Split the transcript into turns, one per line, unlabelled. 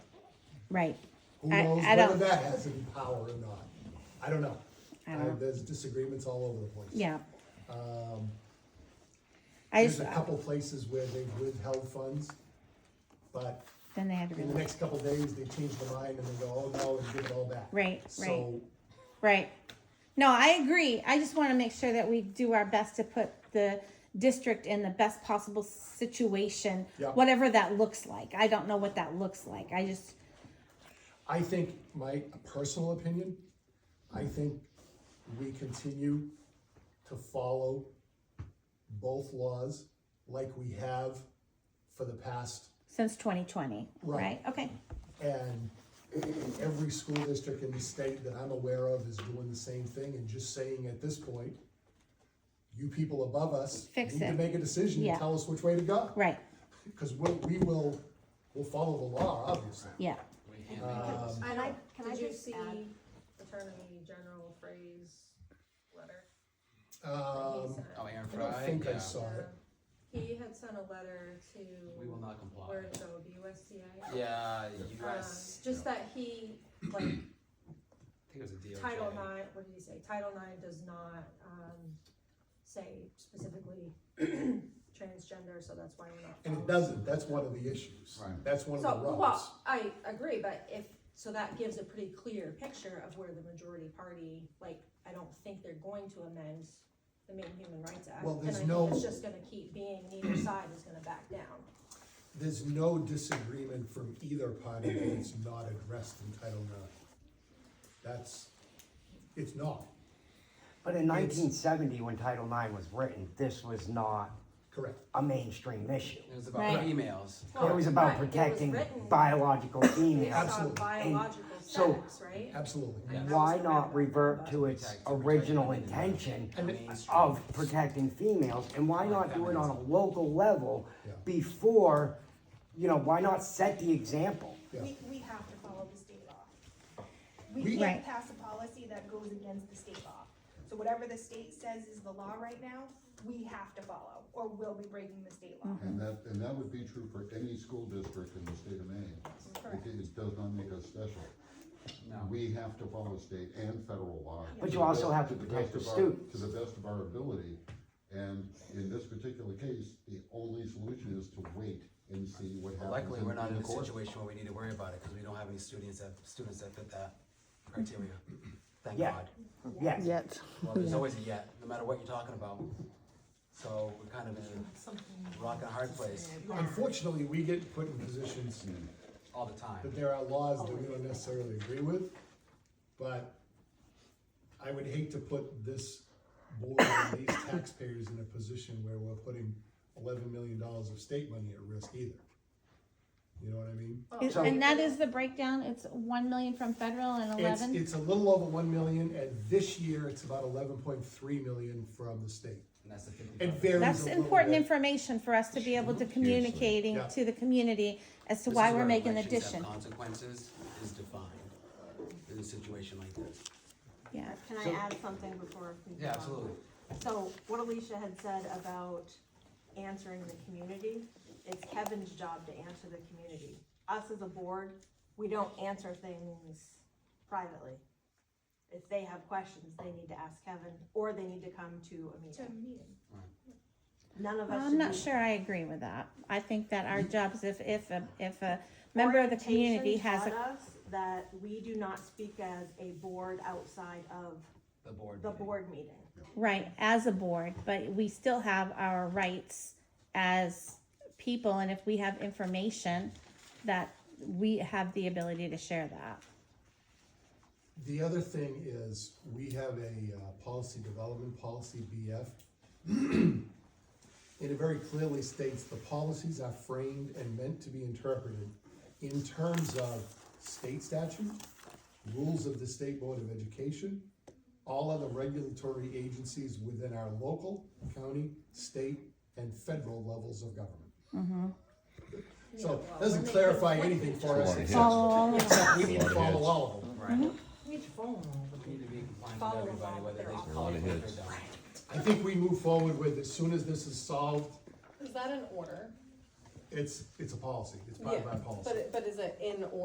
right.
Who
I-
knows
I
whether
don't-
that has any power or not? I don't know.
I don't-
Uh, There's disagreements all over the place.
Yeah.
Um,
I
there's
just,
a couple places where they've withheld funds, but
then they had to,
in the
release.
next couple days, they change their mind and they go, oh, no, and give it all back.
Right,
So,
right. No, I agree. I just want to make sure that we do our best to put the district in the best possible situation,
Yeah.
whatever that looks like. I don't know what that looks like. I just,
I think, my personal opinion, I think we continue to follow both laws like we have for the past,
since twenty twenty, right?
Right.
Okay,
and every school district in the state that I'm aware of is doing the same thing and just saying at this point, you people above us
Fix
need to
it.
make a decision
Yeah.
and tell us which way to go.
right,
Because we, we will, we'll follow the law, obviously.
yeah.
Um,
And I, can I
Did you
just
see
add?
Attorney General Frey's letter? that he
um,
sent?
Oh, Aaron
I
Fry?
don't think I
Yeah.
saw it.
Yeah. He had sent a letter to,
We will not comply.
where it go, USDA?
Yeah,
Uh,
Um,
US.
Just that he, like,
I think it was a DOJ.
Title IX, what did he say? Title IX does not, um, say specifically transgender, so that's why we're not.
And it
following.
doesn't, that's one of the issues.
Right.
That's one of the
So,
rubs.
well, I agree, but if, so that gives a pretty clear picture of where the majority party, like, I don't think they're going to amend the main Human Rights Act.
Well,
and
there's
I think
no-
It's just gonna keep being, neither side is gonna back down.
There's no disagreement from either party that it's not addressed in Title IX. That's, it's not,
But in nineteen seventy, when Title IX was written, this was not
correct.
a mainstream issue.
It was about
Right.
emails.
It was
Right,
about
it was
protecting
written
biological
Based
females.
Absolutely.
on biological
so-
sex, right?
Absolutely.
Yeah.
Why not revert to its
Protect- protect
original
women in the
intention
mainstream.
of protecting females? And why not do it on a local level
Yeah.
before, you know, why not set the example?
Yeah.
We, we have to follow the state law. We
We-
Right.
can't pass a policy that goes against the state law. So whatever the state says is the law right now, we have to follow, or we'll be breaking the state law.
And that, and that would be true for any school district in the state of Maine.
Correct.
It it does not make us special.
No.
We have to follow state and federal law.
But
to
you
the
also
best-
have to
the
protect
best
the
of our-
students.
To the best of our ability, and in this particular case, the only solution is to wait and see what happens.
Luckily, we're not in
the
a
court.
situation where we need to worry about it, because we don't have any students that, students that fit that criteria. Thank
Yeah.
God.
Yes.
Yet.
Well, there's always a yet, no matter what you're talking about. So we're kind of in a rock and a hard place
Unfortunately, we get put in positions
all the time.
that there are laws that we don't necessarily agree with, but I would hate to put this board and these taxpayers in a position where we're putting eleven million dollars of state money at risk either. You know what I mean?
Oh.
Is-
So-
And that is the breakdown. It's one million from federal and
It's,
eleven?
it's a little over one million, and this year it's about eleven point three million from the state.
And that's the fifty.
It varies a
That's
little
important
bit.
information for us to be able to communicating
Yeah.
to the community as to
This
why
is
we're
where
making the
elections have
addition.
Consequences is defined in a situation like this.
Yeah,
Can I add something before? we move
Yeah,
on?
absolutely.
So what Alicia had said about answering the community, it's Kevin's job to answer the community. Us as a board, we don't answer things privately. If they have questions, they need to ask Kevin, or they need to come to a
To a
meeting.
meeting.
None of us should
I'm not
be-
sure I agree with that. I think that our jobs, if, if, a- if a member of the community
Orientation
has a,
taught us That we do not speak as a board outside of
The board.
the
meeting.
board meeting.
right, as a board, but we still have our rights as people, and if we have information, that we have the ability to share that.
The other thing is, we have a uh, policy development, policy BF. And it very clearly states the policies are framed and meant to be interpreted in terms of state statute, rules of the State Board of Education, all other regulatory agencies within our local, county, state, and federal levels of government. So,
Yeah, well,
doesn't
when they
clarify
conflict
anything
each
for us,
other.
except
Follow along with that.
we need to follow all of them.
Right.
Mhm. Each phone.
We need to be compliant with
Follow
everybody,
along with
whether
their
they
office.
call it
Lot
or
of
they
hits.
don't.
I think we move forward with, as soon as this is solved,
Is that an order?
it's, it's a policy, it's part of our policy.
But, it- but is it in order?